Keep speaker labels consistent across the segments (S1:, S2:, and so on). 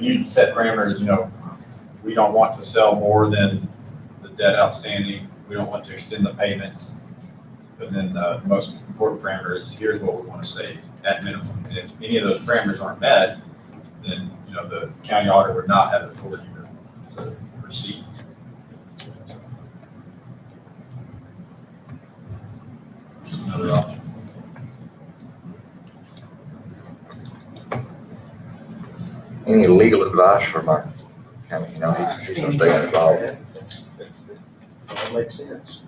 S1: you set parameters, you know, we don't want to sell more than the debt outstanding, we don't want to extend the payments. But then uh, the most important parameter is here's what we want to save at minimum. And if any of those parameters aren't met, then, you know, the county auditor would not have authority to- to proceed. Just Another option.
S2: Any legal advice from our, I mean, you know, he's, he's gonna stay involved.
S3: That makes sense.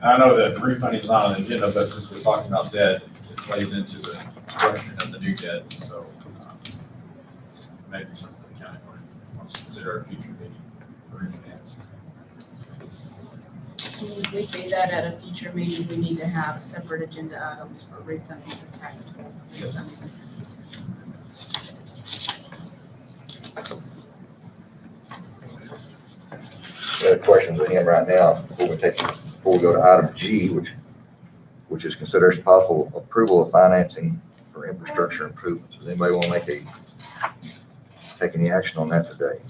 S1: I know that refunding's not on the agenda, but since we're talking about debt, it plays into the structuring of the new debt, so um, maybe something the county board wants to consider at a future meeting for refinance.
S4: Would we do that at a future meeting? We need to have separate agenda items for refunding the tax bill.
S1: Yes,
S2: We have questions with him right now before we take, before we go to item G, which, which is consideration possible approval of financing for infrastructure improvements. Does anybody want to make a, take any action on that today?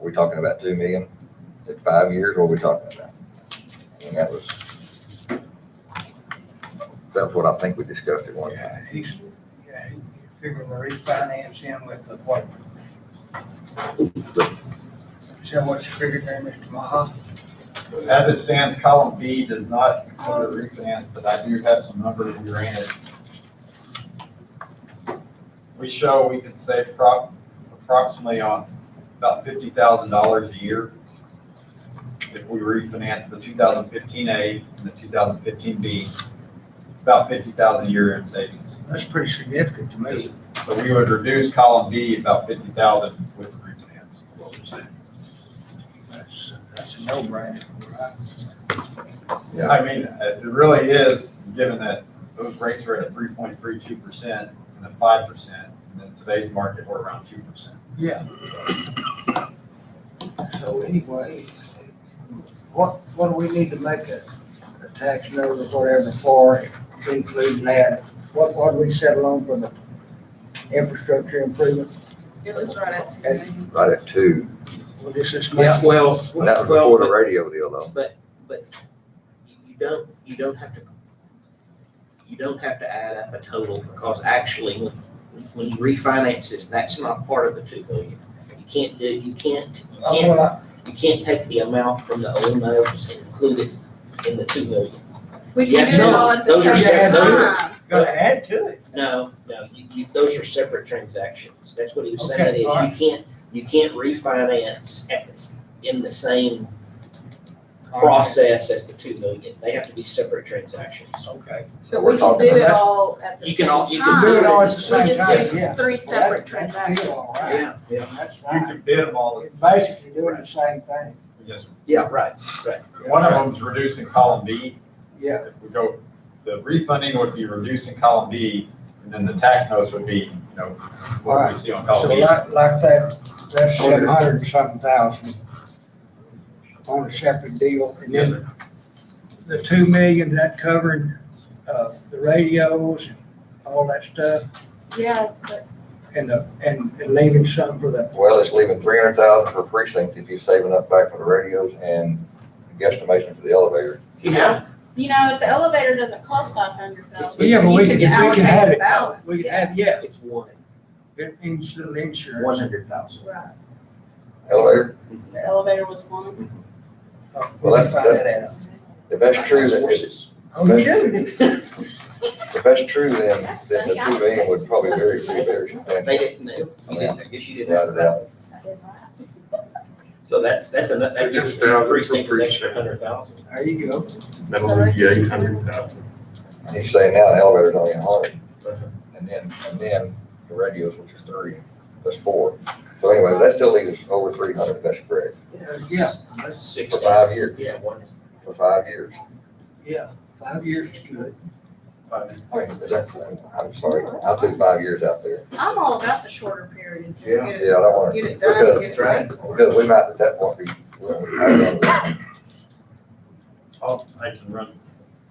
S2: Are we talking about two million at five years? What are we talking about? And that was, that's what I think we discussed at one time.
S5: Yeah, he's, yeah, he's figuring to refinance him with the what? Is that what you figured there, Mr. Maha?
S1: As it stands, column B does not include a refinance, but I do have some numbers we ran it. We show we could save prop, approximately on about fifty thousand dollars a year if we refinance the two thousand fifteen A and the two thousand fifteen B. It's about fifty thousand a year in savings.
S5: That's pretty significant to me.
S1: So we would reduce column B about fifty thousand with the refinance, is what we're saying.
S5: That's, that's a no-brainer. right?
S2: Yeah.
S1: I mean, uh, it really is, given that those rates were at a three point three two percent and a five percent, and in today's market, we're around two percent.
S5: Yeah. So anyway, what, what do we need to make a, a tax note or whatever for, including that? What, what do we settle on for the infrastructure improvement?
S4: It was right at two million.
S2: Right at two.
S5: Well, this is.
S3: Yeah, well,
S2: And that was before the radio deal though.
S3: you you don't, you don't have to, you don't have to add up a total, because actually, when, when you refinance this, that's not part of the two million. You can't do, you can't, you
S5: Oh,
S3: can't,
S5: well, I-
S3: you can't take the amount from the old notes and include it in the two million.
S4: We can
S3: Yeah,
S4: do it
S3: no,
S4: all at the
S3: those
S5: are
S4: same
S5: separate.
S4: time.
S5: Gotta add to it.
S3: No, no, you, you, those are separate transactions. That's what he was saying,
S5: Okay,
S3: is you
S5: all right.
S3: can't, you can't refinance at, the- in the same
S5: right.
S3: process as the two million. They have to be separate transactions.
S5: Okay.
S4: But
S2: we're
S4: we can do
S2: talking
S4: it
S5: about-
S4: all at the
S3: You
S4: same
S3: can all-
S4: time.
S3: you can do it
S5: all at the same
S4: We just
S5: time,
S4: do
S5: yeah.
S4: three separate
S5: Well, that- that's
S4: transactions.
S5: still all right.
S3: yeah.
S5: That's
S1: You
S5: fine.
S1: can bid them all,
S5: It's Basically doing the same thing.
S1: yes, sir.
S3: Yeah, right, right.
S1: one of them is reducing column B.
S5: Yeah.
S1: If we go, the refunding would be reducing column B, and then the tax notes would be, you know, what we
S5: Alright.
S1: see on
S5: So
S1: column B.
S5: like, like that, that's seven hundred and something thousand on a separate deal. And
S1: Yes,
S5: then
S1: sir.
S5: the two million, that covered, uh, the radios and all that stuff
S4: Yeah, but
S5: and the, and and leaving something for the,
S2: Well, it's leaving three hundred thousand for precinct if you're saving up back for the radios and guesstimation for the elevator.
S3: Yeah.
S4: you know, if the elevator doesn't cost five hundred thousand.
S5: yeah, but we can, we can have it.
S4: Balance,
S5: We can
S4: yeah.
S5: have, yeah,
S3: It's one,
S5: it, it's the
S3: one
S5: insurance.
S3: hundred thousand.
S4: Right,
S2: Elevator,
S4: the elevator was one.
S2: Well, that's-
S5: Find Uh, that out.
S2: if that's true, then, if
S5: Oh, you should.
S2: if that's true, then, then the two million would probably very, be very
S3: They
S2: substantial.
S3: didn't know, you didn't, I guess you didn't
S2: Without
S3: ask
S2: a
S3: about.
S2: doubt.
S4: I did that.
S3: So that's, that's another, that gives
S6: Fifty thousand
S3: the precinct an
S6: per
S3: extra
S6: precinct.
S3: hundred thousand.
S5: There you go.
S6: That'll leave you eight hundred thousand.
S2: And he's saying now the elevator's only a hundred.
S3: Uh-huh.
S2: And then, and then the radios, which is three, that's four. So anyway, that still leaves us over three hundred, that's correct,
S5: Yeah.
S3: That's six
S2: for
S3: thousand.
S2: five years,
S3: Yeah, one,
S2: for five years.
S5: Yeah, five years is good.
S1: But
S2: Is that, I'm sorry, I threw five years out there.
S4: I'm all about the shorter period, just
S3: Yeah.
S4: get
S2: Yeah, I don't
S4: it,
S2: wanna-
S4: get it done, get it
S3: That's right.
S4: paid for.
S2: Because we might at that point be, we
S1: I'll, I can run